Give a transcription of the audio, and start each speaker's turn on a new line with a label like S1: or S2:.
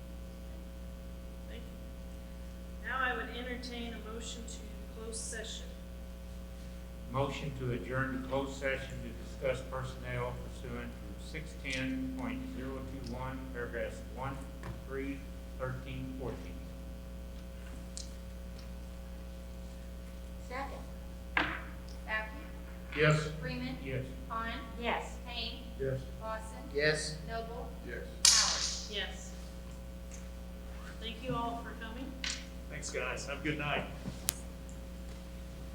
S1: entertain a motion to close session.
S2: Motion to adjourn to closed session to discuss personnel pursuant to six ten point zero two one, paragraphs one, three, thirteen, fourteen.
S3: Second.
S4: Bowden,
S2: Yes.
S4: Freeman,
S2: Yes.
S4: Vaughn,
S3: Yes.
S4: Payne,
S2: Yes.
S4: Lawson,
S5: Yes.
S4: Noble,
S5: Yes.
S4: Howard.
S1: Yes. Thank you all for coming.
S6: Thanks, guys. Have a good night.